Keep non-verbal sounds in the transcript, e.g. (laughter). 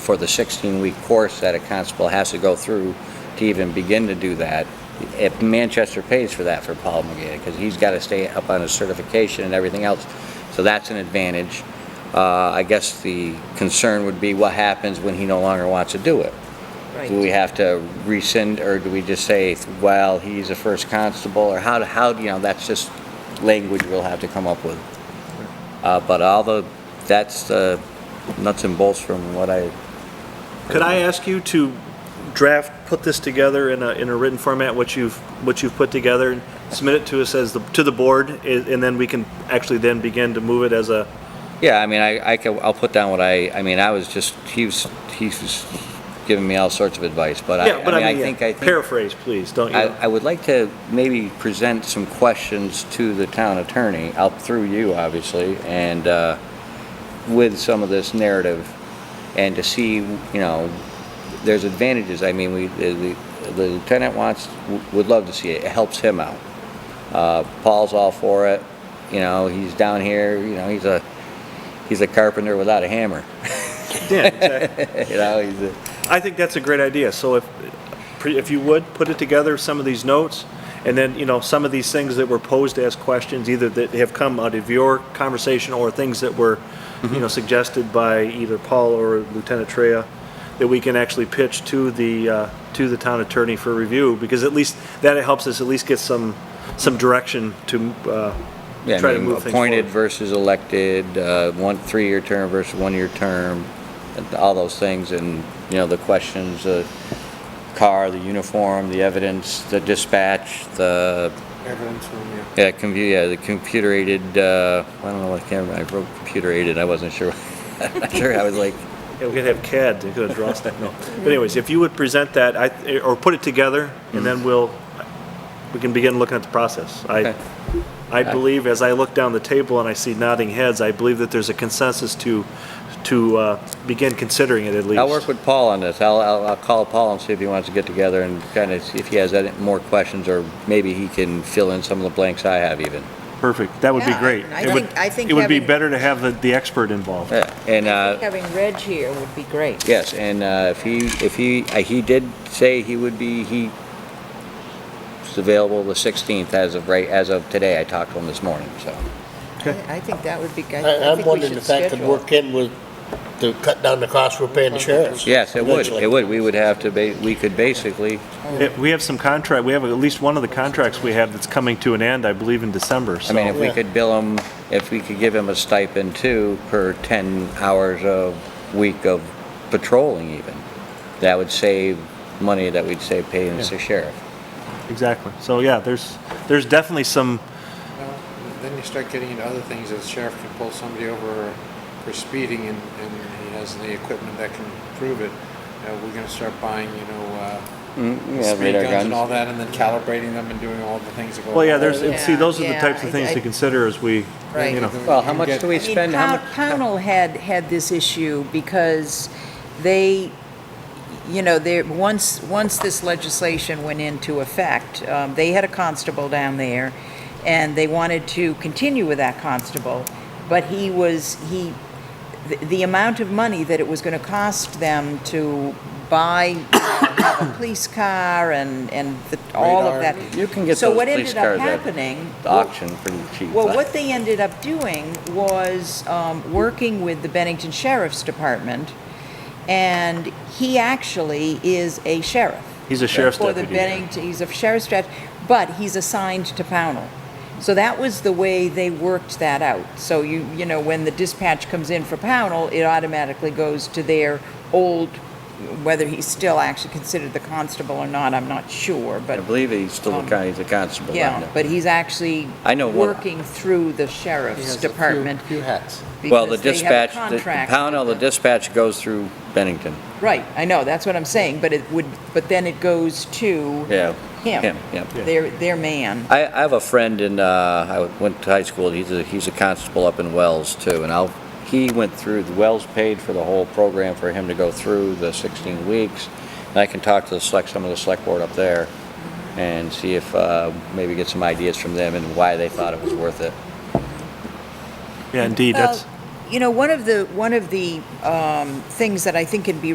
for the 16-week course that a constable has to go through to even begin to do that. If Manchester pays for that for Paul McGee, because he's got to stay up on his certification and everything else, so that's an advantage. Uh, I guess the concern would be what happens when he no longer wants to do it. Do we Right. have to rescind, or do we just say, well, he's a first constable, or how, how, you know, that's just language we'll have to come up with. Uh, but all the, that's the nuts and bolts from what I Could I ask you to draft, put this together in a, in a written format, what you've, what you've put together, and submit it to us as the, to the board, i- and then we can actually then begin to move it as a, Yeah, I mean, I, I can, I'll put down what I, I mean, I was just, he was, he was giving me all sorts of advice, but I, yeah, but I I mean, I mean, think, I yeah, think, paraphrase, please, don't I, you? I would like to maybe present some questions to the town attorney, out through you, obviously, and, uh, with some of this narrative, and to see, you know, there's advantages, I mean, we, the, the lieutenant wants, would love to see it, it helps him out. Uh, Paul's all for it, you know, he's down here, you know, he's a, he's a carpenter without a hammer. (laughs) Yeah, exactly. You know, he's a, I think that's a great idea, so if, pre- if you would, put it together, some of these notes, and then, you know, some of these things that were posed as questions, either that have come out of your conversation, or things that were, you Mm-hmm. know, suggested by either Paul or Lieutenant Treya, that we can actually pitch to the, uh, to the town attorney for review, because at least, that helps us at least get some, some direction to, uh, yeah, try I to mean, move things forward. appointed versus elected, uh, one, three-year term versus one-year term, and all those things, and, you know, the questions, the car, the uniform, the evidence, the dispatch, the, Evidence room, yeah. yeah, compu, yeah, the computer aided, uh, I don't know what camera, I wrote computer aided, I wasn't sure. (laughs) I'm sure, I was like, Yeah, we could have CAD to go draw stuff, no. But anyways, if you would present that, I, or put it together, and then we'll, we can begin looking at the process. I, Okay. I believe, as I look down the table and I see nodding heads, I believe that there's a consensus to, to uh, begin considering it at least. I'll work with Paul on this. I'll, I'll, I'll call Paul and see if he wants to get together and kind of, see if he has any more questions, or maybe he can fill in some of the blanks I have even. Perfect, that would be Yeah, great. I It would- think- I think It would be having- better to have the, the expert involved. Yeah, and, uh, Having Reg here would be great. Yes, and uh, if he, if he, uh, he did say he would be, he is available the 16th as of right, as of today. I talked to him this morning, so. I think that would be, good. I- I I'm think we wondering should if that could schedule. work in with, to cut down the cost we're paying the sheriffs. Yes, it would, eventually. it would. We would have to, ba- we could basically, Yeah, We have some contract, we have at least one of the contracts we have that's coming to an end, I believe, in December, I mean, if so. we Yeah. could bill him, if we could give him a stipend too per 10 hours a week of patrolling even, that would save money that we'd save paying the sheriff. Exactly, so yeah, there's, there's definitely some, Well, Then you start getting into other things, that the sheriff can pull somebody over for speeding and, and he has the equipment that can prove it. Uh, we're gonna start buying, you know, uh, speed guns and all that, and then calibrating them and doing all the things that go. Well, yeah, along there's, with it. and see, those are the Yeah, types of yeah, things I- to consider as we, Right. you know. Well, how You much get- do we I mean, spend? How much? Pown- Pownell had, had this issue because they, you know, they, once, once this legislation went into effect, um, they had a constable down there, and they wanted to continue with that constable, but he was, he, the- the amount of money that it was going to cost them to buy, you know, have a police car and, and the- all of that. Radar. You can get So those what police ended up cars at happening? The auction pretty cheap. Well, what they ended up doing was um, working with the Bennington Sheriff's Department, and he actually is a sheriff. He's a sheriff's For the deputy there. Bennington, he's a sheriff's deputy, but he's assigned to Pownell. So that was the way they worked that out. So you, you know, when the dispatch comes in for Pownell, it automatically goes to their old, whether he's still actually considered the constable or not, I'm not sure, I but, believe he's still a guy, he's a constable. down um, yeah, there. but he's actually I know one- working through the He sheriff's has a few- department Few hats. Well, the because they have a dispatch, the contract Pownell, the with dispatch goes through Bennington. the- Right, I know, that's what I'm saying, but it would, but then it goes to Yeah. him, Yep. their, their man. I, I have a friend in, uh, I went to high school, he's a, he's a constable up in Wells too, and I'll, he went through, the Wells paid for the whole program for him to go through the sixteen weeks. And I can talk to the select, some of the select board up there and see if, uh, maybe get some ideas from them and why they thought it was worth it. Yeah, indeed, Well, that's. You know, one of the, one of the um, things that I think can be